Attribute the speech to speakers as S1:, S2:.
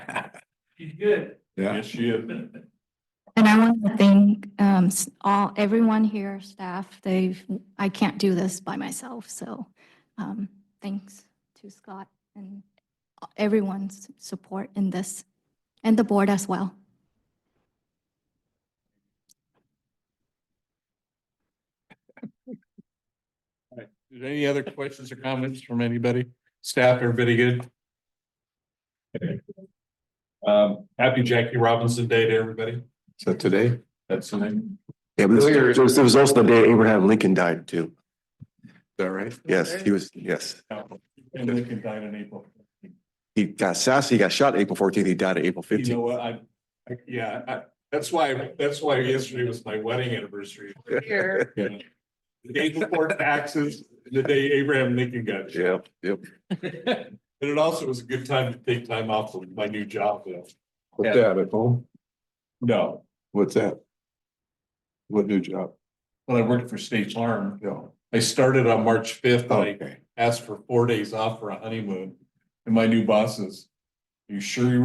S1: She's good.
S2: Yeah,
S3: Yes, she is.
S4: And I want to thank um, s- all, everyone here, staff, they've, I can't do this by myself, so um, thanks to Scott and everyone's support in this, and the board as well.
S3: Is there Any other questions or comments from anybody? Staff, everybody good? Okay. Um, happy Jackie Robinson Day to everybody.
S2: so today,
S3: That's the name.
S5: Yeah, but
S3: Earlier-
S5: there was, there was also the day Abraham Lincoln died too.
S2: is that right?
S5: Yes, he was, yes.
S3: And Lincoln died in April.
S5: He got sassy, he got shot April fourteenth, he died April
S3: You know
S5: fifteenth.
S3: what, I, I- yeah, I, that's why, that's why yesterday was my wedding anniversary.
S6: Here,
S3: you know. The day before taxes, the day Abraham Lincoln got shot.
S5: Yep, yep.
S3: And it also was a good time to take time off of my new job. though.
S2: What's that at home?
S3: No,
S2: What's that? What new job?
S3: when I worked for State Farm,
S2: No.
S3: I started on March fifth, I
S2: Okay.
S3: asked for four days off for a honeymoon. And my new boss says, you sure you